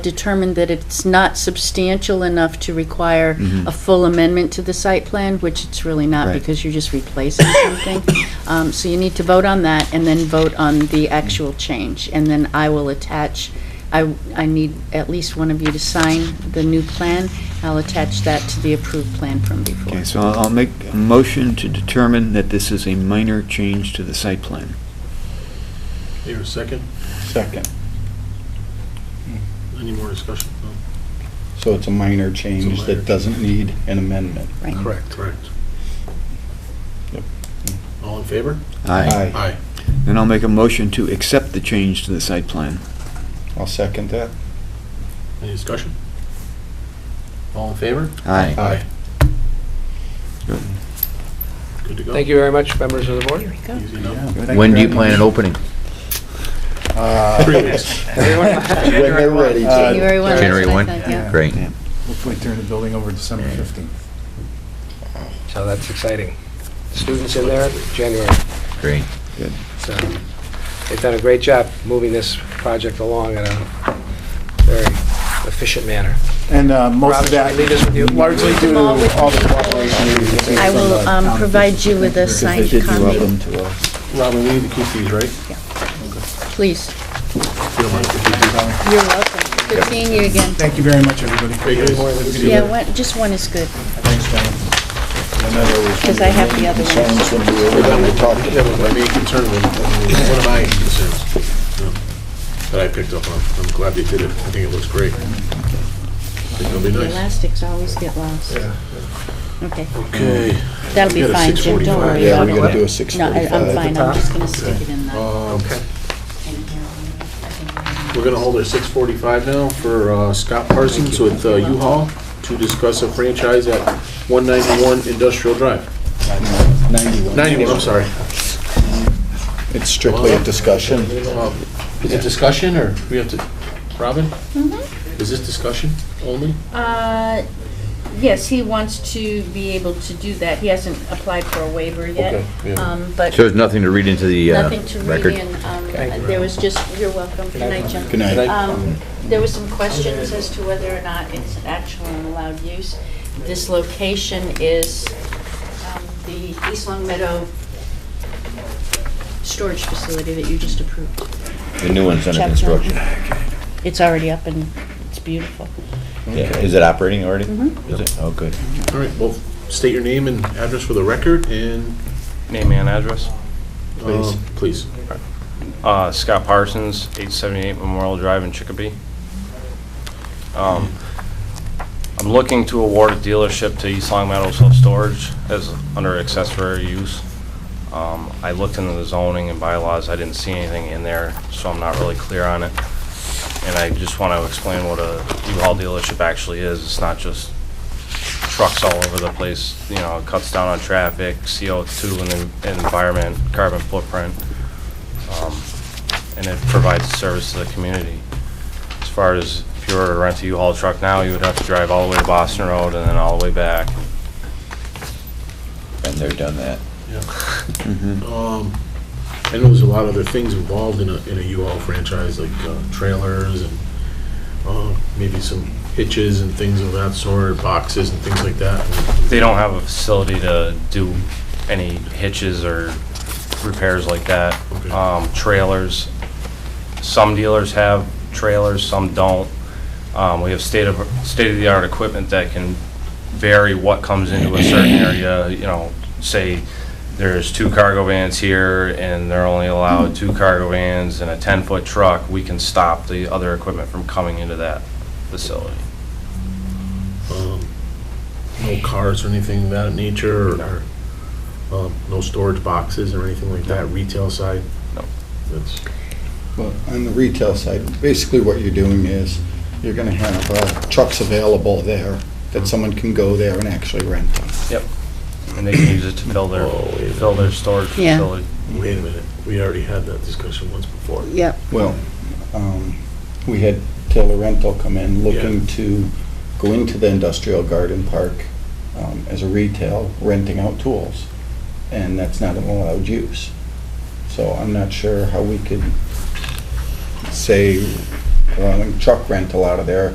determined that it's not substantial enough to require a full amendment to the site plan, which it's really not, Right. because you're just replacing something. Um, So you need to vote on that, and then vote on the actual change. And then I will attach, I, I need at least one of you to sign the new plan. I'll attach that to the approved plan from before. Okay, so I'll I'll make a motion to determine that this is a minor change to the site plan. Here, a second. Second. Any more discussion? No. So it's a minor It's change a minor that doesn't need an amendment. Right. Correct. Correct. Yep. All in favor? Aye. Aye. Then I'll make a motion to accept the change to the site plan. I'll second that. Any discussion? All in favor? Aye. Good to go. Thank you very much, members of the board. There you go. Easy enough. When do you plan on opening? Uh, Three weeks. When they're ready. Uh, January 1. that's January what I 1? thought, yeah. Great. Yeah. Hopefully turn the building over December 15th. So that's exciting. Students in there, January. Great. So They've done a great job moving this project along in a very efficient manner. And uh, most Rob, of should I that, leave this with you? largely due to all the cooperation we received I from will, the um, town provide officials. you with a Because they signed did do copy. all the- to us. Robin, we need to keep these, right? If Please, you don't mind, if we do. you're welcome. Good seeing you again. Thank you very much, everybody. Hey, guys. Any more than we can do. Yeah, one- just one is good, Thanks, gentlemen. because I have the other one. Sounds when we were done, we talked. That was my main concern, was- was one of my concerns you know, that I picked up on. I'm glad they did it. I think it looks great. I think it'll be The nice. elastics always get lost. Okay, Okay. that'll be We got a fine, Jim, don't 6:45. worry Yeah, about we're gonna it. do a No, I- 6:45. I'm fine, I'm top. just gonna stick it in the, Um, Okay. in here. I think- We're gonna hold our six forty-five now for uh, Scott Parsons with uh, U-Haul to discuss a franchise at one ninety-one Industrial Drive. 91. Ninety-one, I'm sorry. It's strictly a discussion. Uh, Is it discussion, or we have to, Robin? Mm-hmm. Is this discussion only? Uh, Yes, he wants to be able to do that, he hasn't applied for a waiver yet, Okay, yeah. um, but So there's nothing to read into the uh, nothing to read record? in. um, There was just, you're welcome, good night, Jim. Good night. Um, There was some questions as to whether or not it's an actual and allowed use. This location is um, the East Long Meadow storage facility that you just approved. The new one's under Check construction. It's already up and it's beautiful. Yeah. Is it operating already? Mm-hmm. Is it? Oh, good. All right, well, state your name and address for the record, and, Name and address. um, please. Uh, Scott Parsons, 878 Memorial Drive in Chicopee. Um, I'm looking to award a dealership to East Long Meadow Self Storage as under accessory use. Um, I looked into the zoning and bylaws, I didn't see anything in there, so I'm not really clear on it. And I just want to explain what a U-Haul dealership actually is. It's not just trucks all over the place, you know, it cuts down on traffic, CO2 and the environment, carbon footprint um, and it provides service to the community. As far as if you were to rent a U-Haul truck now, you would have to drive all the way to Boston Road and then all the way back. Been there, done that. Um, I know there's a lot of other things involved in a, in a U-Haul franchise, like uh, trailers and uh, maybe some hitches and things of that sort, boxes and things like that. They don't have a facility to do any hitches or repairs like that. Okay. Um, Trailers, some dealers have trailers, some don't. Um, We have state of, state-of-the-art equipment that can vary what comes into a certain area, you know, say there's two cargo vans here and they're only allowed two cargo vans and a 10-foot truck, we can stop the other equipment from coming into that facility. Um, No cars or anything of that nature, or- or, um, no storage boxes or anything like that, retail side? No. That's, Well, on the retail side, basically what you're doing is, you're gonna have uh, trucks available there, that someone can go there and actually rent them. And they can use it to fill their, Oh, yeah. fill their storage Yeah. facility. wait a minute, we already had that discussion once before. Yep. Well, um, we had Taylor Rental come in looking to go into the industrial garden park um, as a retail, renting out tools, and that's not an allowed use. So I'm not sure how we could say allowing truck rental out of there